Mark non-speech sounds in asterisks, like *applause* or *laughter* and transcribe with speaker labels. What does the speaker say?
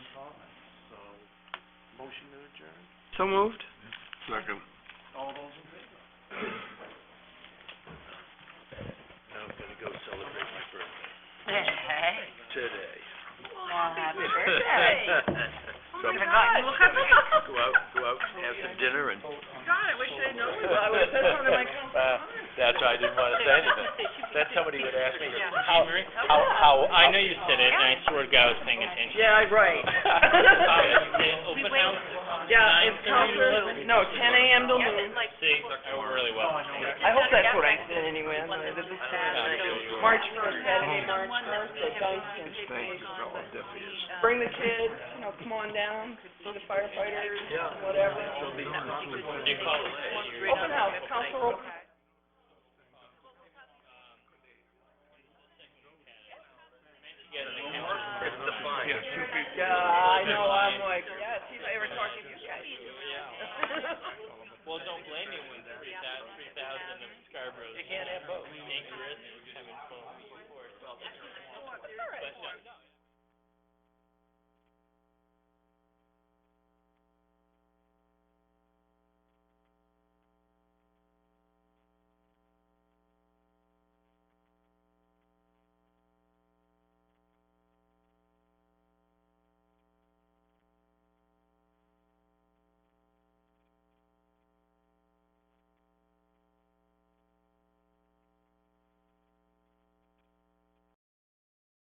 Speaker 1: Motion to adjourn?
Speaker 2: So moved?
Speaker 3: Second.
Speaker 1: All those in favor? Now I'm gonna go celebrate my birthday today.
Speaker 4: Well, happy birthday.
Speaker 1: *laughs* Oh
Speaker 3: So I'm- Go out, go out, have some dinner and.
Speaker 4: God, I wish I'd known that. I would have said something
Speaker 1: *laughs*
Speaker 4: to my council.
Speaker 1: Uh, That's why I didn't wanna say anything. Then somebody would ask me,
Speaker 4: Yeah.
Speaker 1: how, how, how, I know you said it, and I swear to God I was paying attention.
Speaker 2: Yeah,
Speaker 1: *laughs*
Speaker 2: right.
Speaker 1: open house
Speaker 2: Yeah, it's council, no, ten AM to noon.
Speaker 1: See, I work really well.
Speaker 2: I hope that's what I said anyway, I'm not, this is Saturday. March first, Saturday, March first, at Dunstan.
Speaker 3: Thanks, that's all I'm deaf is.
Speaker 2: Bring the kids, you know, come on down, see the firefighters, whatever. Open house, council open.
Speaker 3: It's the fine.
Speaker 2: Yeah.